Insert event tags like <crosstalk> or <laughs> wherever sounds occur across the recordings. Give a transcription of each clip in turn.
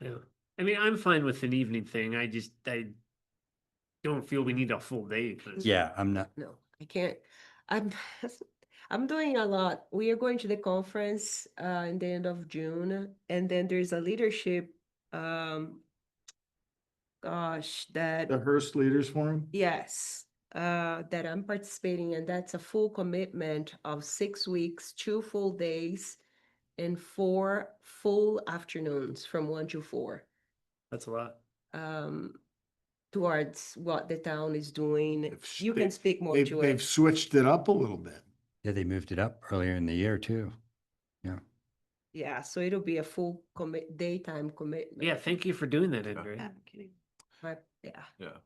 Yeah, I mean, I'm fine with an evening thing. I just, I don't feel we need a full day. honestly. Yeah, I'm not, No, I can't. I'm <laughs> I'm doing a lot. We are going to the conference uh in the end of June, and then there's a leadership um gosh, that The Hearst Leaders Forum? yes, uh that I'm participating and that's a full commitment of six weeks, two full days and four full afternoons from one to four That's a lot. um towards what the town is doing. They've You can sta- speak more They've, to they've it. switched it up a little bit. yeah, they moved it up earlier in the year too. Yeah, so it'll be a full commit, daytime commitment. Yeah, thank you for doing that, Yeah. Andrea. But, yeah. Yeah.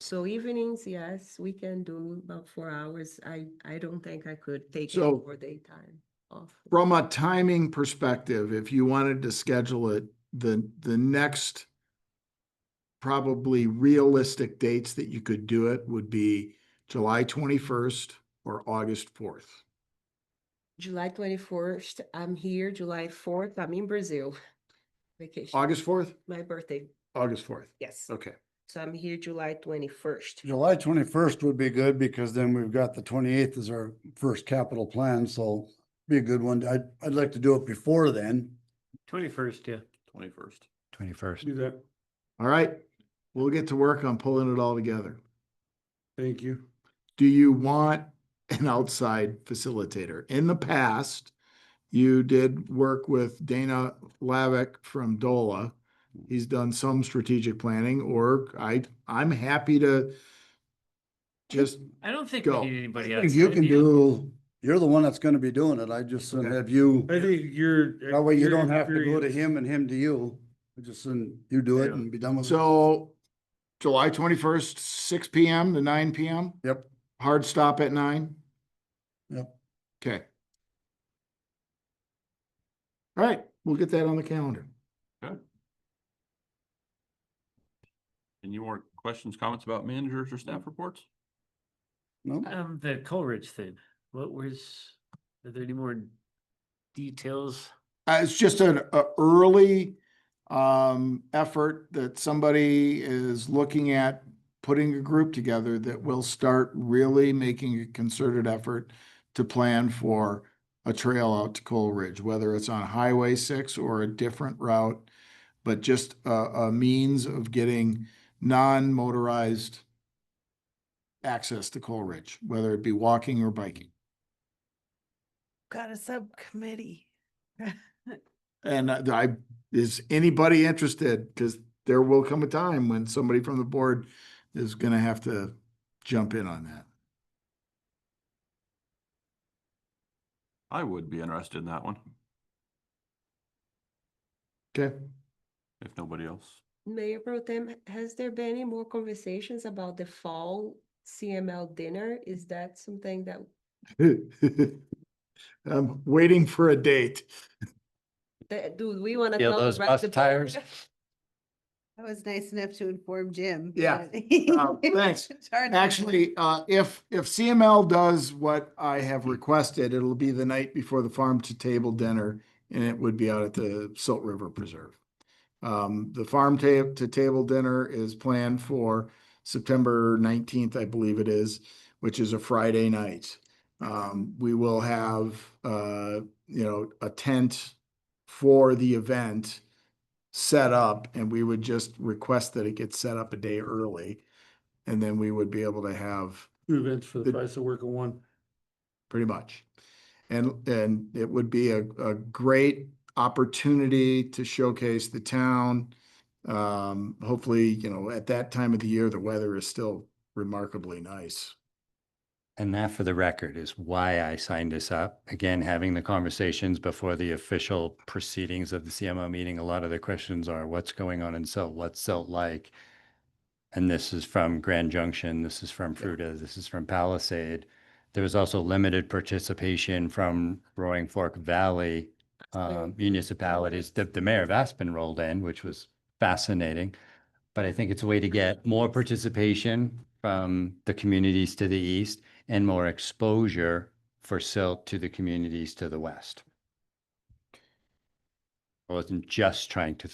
So evenings, yes, we can do about four hours. I, I don't think I could take it So- for daytime off. From a timing perspective, if you wanted to schedule it, the, the next probably realistic dates that you could do it would be July twenty-first or August fourth. July twenty-first, I'm here. July fourth, I'm in Brazil. <laughs> Vacation, August Oh. fourth? my birthday, August fourth. yes. Okay. So I'm here July twenty-first. July twenty-first would be good because then we've got the twenty-eighth is our first capital plan, so be a good one. I'd, I'd like to do it before then. Twenty-first, yeah. Twenty-first. Twenty-first. Do that. All right. We'll get to work on pulling it all together. Thank you. do you want an outside facilitator? In the past, you did work with Dana Lavick from DOLA. He's done some strategic planning, or I, I'm happy to just, I don't think Go. we need anybody If else. You can do, you're the one that's gonna be doing it. I just Okay. shouldn't have you, I think you're. that way you don't have to go to him. him and him to you. I Just, shouldn't- you do it Yeah. and be done with it. so July twenty-first, six P M. to nine P M. Yep. Hard stop at nine? Yep. Okay. All right, we'll get that on the calendar. Any more questions, comments about managers or staff reports? No? Um, the Coleridge thing, what was, are there any more details? Uh, it's just an a early um, effort that somebody is looking at putting a group together that will start really making a concerted effort to plan for a trail out to Coleridge, whether it's on Highway six or a different route, but just a, a means of getting non-motorized access to Coleridge, whether it be walking or biking. got a subcommittee. And I- I, is anybody interested? Because there will come a time when somebody from the board is gonna have to jump in on that. I would be interested in that one, Okay, if nobody else. Mayor Pro Tem, has there been any more conversations about the fall CML dinner? Is that something that <laughs> I'm Um, waiting for a date. That, do we wanna? Yeah, tell those the re- bus the- <laughs> tires. That was nice enough to inform Jim. Yeah. that- <laughs> Uh, thanks. It's hard to- Actually, uh, if, if CML does what I have requested, it'll be the night before the farm to table dinner and it would be out at the Silt River Preserve. Um, the farm ta- to table dinner is planned for September nineteenth, I believe it is, which is a Friday night. Um, we will have, uh, you know, a tent for the event set up and we would just request that it gets set up a day early. And then we would be able to have Two events for the The- price of work of one. pretty much. And, and it would be a, a great opportunity to showcase the town. Um, hopefully, you know, at that time of the year, the weather is still remarkably nice. And that for the record is why I signed this up. Again, having the conversations before the official proceedings of the CMO meeting, a lot of the questions are what's going on in Silt, what's Silt like? And this is from Grand Junction, this is from Fruta, this is from Palisade. There was also limited participation from Roaring Fork Valley uh, municipalities. The, the mayor of Aspen rolled in, which was fascinating. But I think it's a way to get more participation from the communities to the east and more exposure for silt to the communities to the west. I wasn't just trying to